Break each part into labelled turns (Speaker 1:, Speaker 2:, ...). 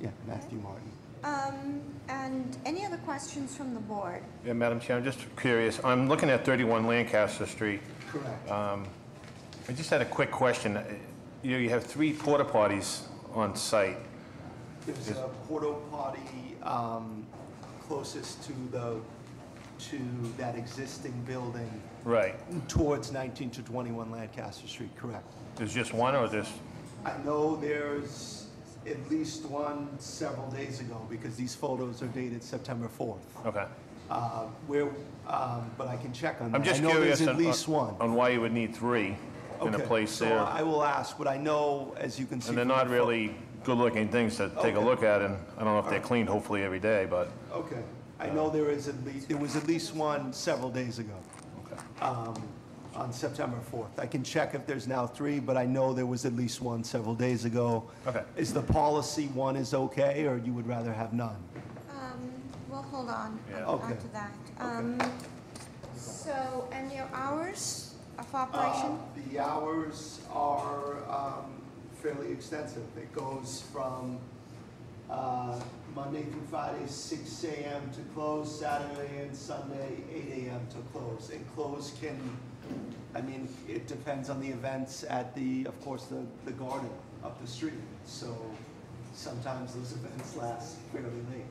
Speaker 1: Yeah, Matthew Martin.
Speaker 2: Um, and any other questions from the board?
Speaker 3: Yeah, Madam Chair, I'm just curious. I'm looking at 31 Lancaster Street.
Speaker 1: Correct.
Speaker 3: Uh, I just had a quick question. Uh, You you have three porta potties on site.
Speaker 1: There's a porta potty um, closest to the, to that existing building
Speaker 3: Right.
Speaker 1: towards 19 to 21 Lancaster Street, correct.
Speaker 3: There's just one or there's,
Speaker 1: I know there's at least one several days ago because these photos are dated September 4th.
Speaker 3: okay.
Speaker 1: Uh, Where, um, but I can check on that.
Speaker 3: I'm just
Speaker 1: I know
Speaker 3: curious
Speaker 1: there's at
Speaker 3: on-
Speaker 1: least
Speaker 3: on
Speaker 1: one.
Speaker 3: on why you would need three in a
Speaker 1: Okay,
Speaker 3: place
Speaker 1: so
Speaker 3: there.
Speaker 1: I will ask, but I know, as you can see.
Speaker 3: And they're
Speaker 1: from the
Speaker 3: not
Speaker 1: pho-
Speaker 3: really good-looking things to take a
Speaker 1: Okay.
Speaker 3: look at, and I don't know if they're cleaned hopefully every day, but,
Speaker 1: Okay, I know there is at least, there was at least one several days ago,
Speaker 3: okay.
Speaker 1: um, on September 4th. I can check if there's now three, but I know there was at least one several days ago.
Speaker 3: Okay.
Speaker 1: Is the policy one is okay, or you would rather have none?
Speaker 2: Um, well, hold on,
Speaker 3: Yeah.
Speaker 1: Okay.
Speaker 2: after that. Um, so, and your hours of operation?
Speaker 1: Uh, The hours are um, fairly extensive. It goes from uh, Monday through Friday, six AM to close, Saturday and Sunday, eight AM to close. And close can, I mean, it depends on the events at the, of course, the, the garden up the street. So sometimes those events last fairly late.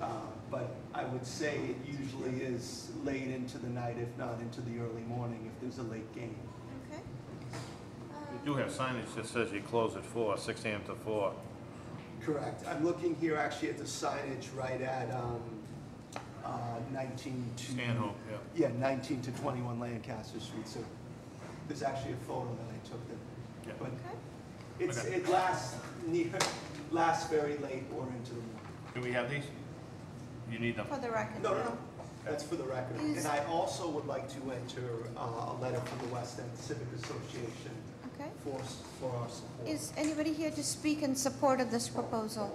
Speaker 1: Uh, But I would say it usually is late into the night, if not into the early morning, if there's a late game.
Speaker 2: Okay. Uh,
Speaker 3: You do have signage that says you close at four, six AM to four.
Speaker 1: Correct. I'm looking here actually at the signage right at um, uh, 19 to... Yeah,
Speaker 3: yeah.
Speaker 1: 19 to 21 Lancaster Street, so there's actually a photo that I took
Speaker 3: Yeah.
Speaker 1: there.
Speaker 2: Okay.
Speaker 1: But it's,
Speaker 3: Okay.
Speaker 1: it lasts near, lasts very late or into the morning.
Speaker 3: Do we have these? You need them.
Speaker 2: For the record.
Speaker 1: No, no, no, that's for the record.
Speaker 2: Is-
Speaker 1: And I also would like to enter uh, a letter from the West End Civic Association
Speaker 2: Okay.
Speaker 1: for, s- for our support.
Speaker 2: Is anybody here to speak in support of this proposal?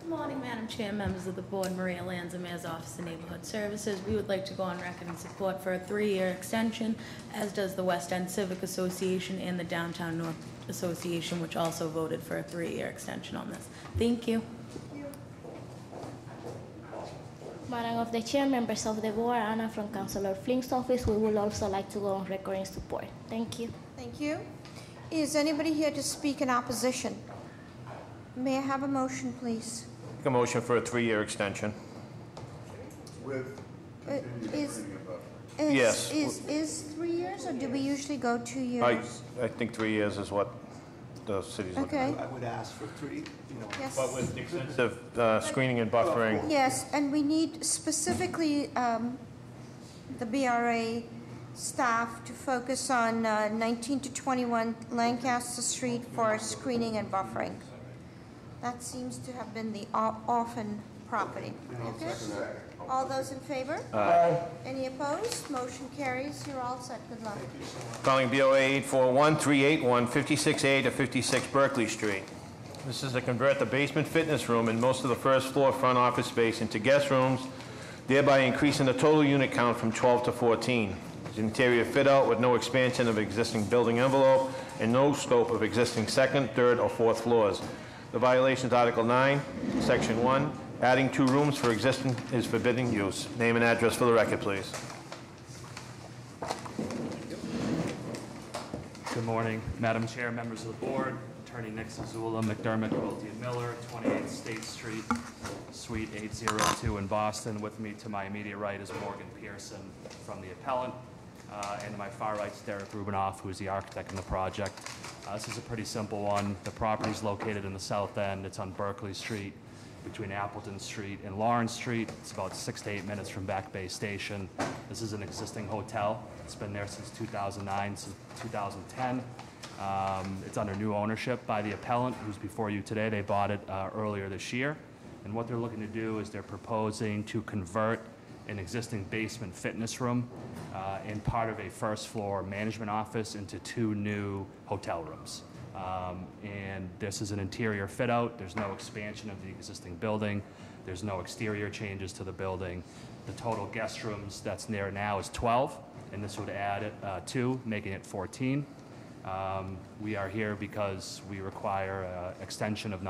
Speaker 4: Good morning, Madam Chair, members of the board, Maria Lanza, Mayor's Office of Neighborhood Services. We would like to go on record in support for a three-year extension, as does the West End Civic Association and the Downtown North Association, which also voted for a three-year extension on this. Thank you.
Speaker 5: Madam of the Chair, members of the board, Anna from Councilor Flink's office, we would also like to go on record in support. Thank you.
Speaker 2: Thank you. Is anybody here to speak in opposition? May I have a motion, please?
Speaker 3: Make a motion for a three-year extension.
Speaker 6: With
Speaker 2: Uh,
Speaker 6: continued
Speaker 2: is-
Speaker 6: printing above.
Speaker 2: Is-
Speaker 3: Yes.
Speaker 2: Is, is three years, or do we usually go two
Speaker 3: I,
Speaker 2: years?
Speaker 3: I think three years is what the city's looking
Speaker 2: Okay.
Speaker 3: at.
Speaker 1: I would ask for three, you know,
Speaker 2: Yes.
Speaker 3: But with extensive uh, screening and buffering,
Speaker 2: Yes, and we need specifically um, the BRA staff to focus on uh, 19 to 21 Lancaster Street for screening and buffering. That seems to have been the o- often property. Okay? All those in favor? Any opposed? Motion carries. You're all set. Good luck.
Speaker 3: calling BOA 841-381-56A to 56 Berkeley Street. This is to convert the basement fitness room and most of the first floor front office space into guest rooms, thereby increasing the total unit count from 12 to 14. It's Interior fit-out with no expansion of existing building envelope and no scope of existing second, third, or fourth floors. The violation is Article 9, Section 1, adding two rooms for existing is forbidden use. Name and address for the record, please.
Speaker 7: Good morning, Madam Chair, members of the board, Attorney Nick Zazula, McDermott, Wiltie and Miller, 28 State Street, Suite 802 in Boston. With me to my immediate right is Morgan Pearson from the appellant, uh, and to my far right is Derek Rubinoff, who is the architect in the project. Uh, This is a pretty simple one. The property is located in the south end. It's on Berkeley Street between Appleton Street and Lawrence Street. It's about six to eight minutes from Back Bay Station. This is an existing hotel. It's been there since 2009, since 2010. Um, It's under new ownership by the appellant, who's before you today. They bought it uh, earlier this year. And what they're looking to do is they're proposing to convert an existing basement fitness room uh, and part of a first-floor management office into two new hotel rooms. Um, And this is an interior fit-out. There's no expansion of the existing building. There's no exterior changes to the building. The total guest rooms that's there now is 12, and this would add uh, two, making it 14. Um, We are here because we require uh, extension of non